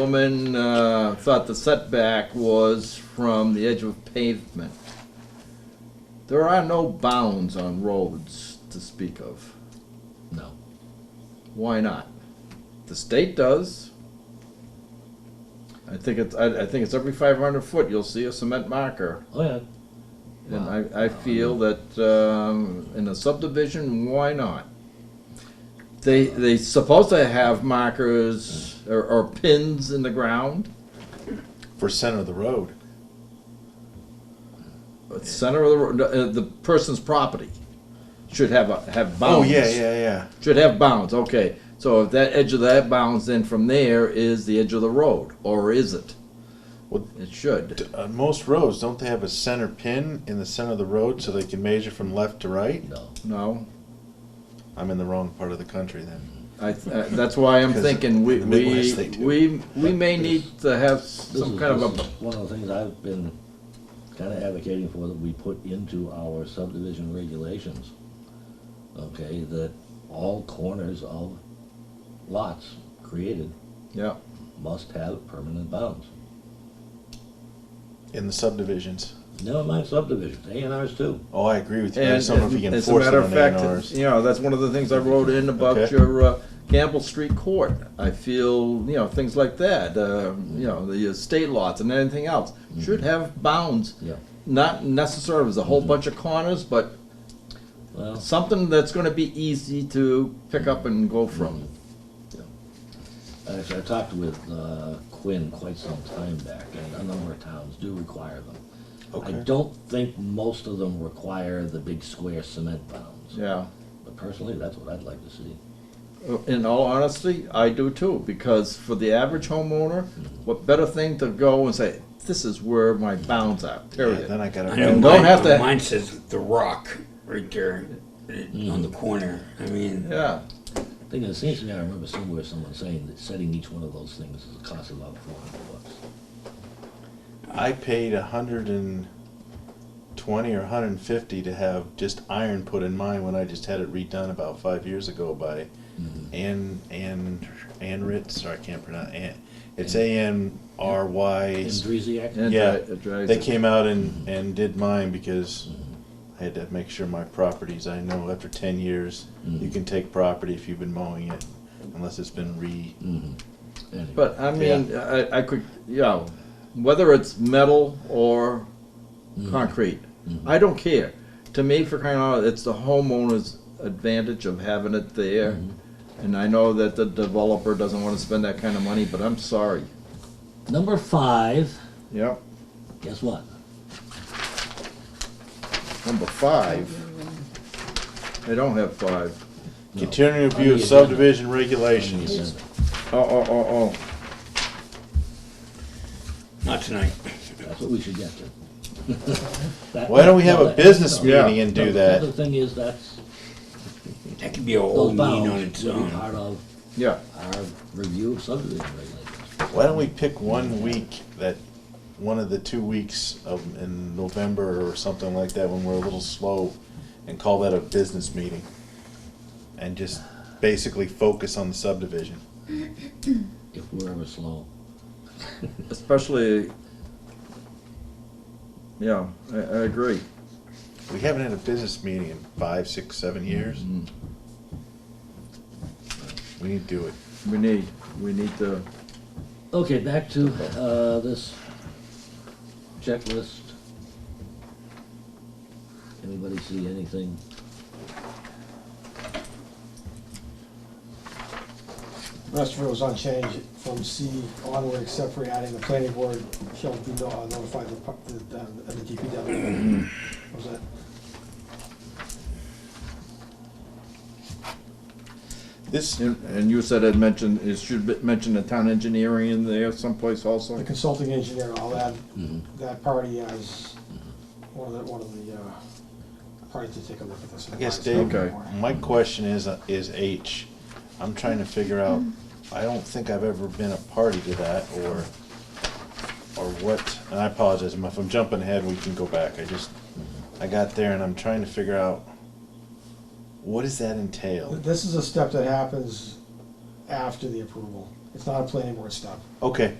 woman uh, thought the setback was from the edge of pavement. There are no bounds on roads to speak of. No. Why not? The state does. I think it's, I, I think it's every five hundred foot, you'll see a cement marker. Oh, yeah. And Wow. I, I feel that, um, in a subdivision, why not? They, they supposed to have markers or, or pins in the ground, for center of the road. but center of the, road, uh, the person's property should have, a- have Oh, bounds. yeah, yeah, yeah. Should have bounds, okay. So if that edge of that bounds, then from there is the edge of the road, or is it? Well- It should. D- On most roads, don't they have a center pin in the center of the road so they can measure from left to right? No. No, I'm in the wrong part of the country then. I, th- uh, that's why I'm Because thinking we, in the we, Midwest, they do. we, we may need to have This some is- kind of this a, is One of the things I've been kind of advocating for that we put into our subdivision regulations, okay, that all corners of lots created yeah, must have permanent bounds. In the subdivisions. Never mind subdivisions, A and Rs too. Oh, I agree with you. I And just don't know if you can as a force it matter on of fact, A&Rs. you know, that's one of the things I wrote in about Okay. your uh, Campbell Street Court. I feel, you know, things like that, uh, you know, the estate lots and anything else Mm-hmm. should have bounds. Yeah. Not necessarily as a Mm-hmm. whole bunch of corners, but Well, something that's gonna be easy to pick up and go from. actually, I talked with uh, Quinn quite some time back, and a number of towns do require them. I Okay. don't think most of them require the big square cement Mm-hmm. bounds, Yeah. Uh, but personally, that's what I'd like to see. In all honesty, I do too, because for the average homeowner, Mm-hmm. what better thing to go and say, this is where my bounds are, Yeah, period. then I gotta. know. don't have to- Mine says the rock right there Hmm. eh, on the corner. I mean, Yeah. Thing is, it seems to me, I remember somewhere someone saying that setting each one of those things is a cost of about four hundred bucks. I paid a hundred and twenty or hundred and fifty to have just iron put in mine when I just had it redone about five years ago by Mm-hmm. Ann Ann Ann Ritz. Sorry, I can't pronounce Ann. It's A N R Y. Andresiak? And Yeah, dri- it drives They it. came out and and did mine because Mm-hmm. I had to make sure my properties. I know after ten years Mm. you can take property if you've been mowing it, unless it's been re. Mm-hmm. Anyway, But I mean, I, I could, you know, whether it's metal or concrete, I don't care. To me, for crying out, loud, it's the homeowner's advantage of having it there. And I know that the developer doesn't wanna spend that kind of money, but I'm sorry. Number five, Yep. guess what? Number five. They don't have five. No. Continuing On review the of agenda. subdivision On the regulations. agenda. Oh, oh, oh, not tonight. That's what we should get to. That- Why don't we have no, a that- business no, meeting and no, do that? The other thing is, that's, That could be a whole those meeting bounds on would its be part own. of oh, yeah. our review of subdivision regulations. Why don't we pick one week that, one of the two weeks of, in November or something like that, when we're a little slow, and call that a business meeting? And just basically focus on the subdivision. If we're ever slow, Especially, yeah, I, I agree. We haven't had a business meeting in five, six, seven years. We need to do it. We need, we need to, Okay, back to uh, this checklist. Anybody see anything? Rest of it was unchanged from C onward, except for adding the planning board shall be no- uh, notified of the, pu- the, um, of the DPW. That Was it? This, and and you said it mentioned, it should be- mention the town engineering in there someplace also? The consulting engineer, I'll add Mm-hmm. that party as one of the, one of the, uh, parties to take a look at this. I guess, Dave, Okay. my question is, uh, is H. I'm trying to figure out, I don't think I've ever been a party to that, or, or what, and I apologize, if I'm jumping ahead, we can go back, I just, I got there and I'm trying to figure out, what does that entail? This is a step that happens after the approval. It's not a planning board stop. Okay.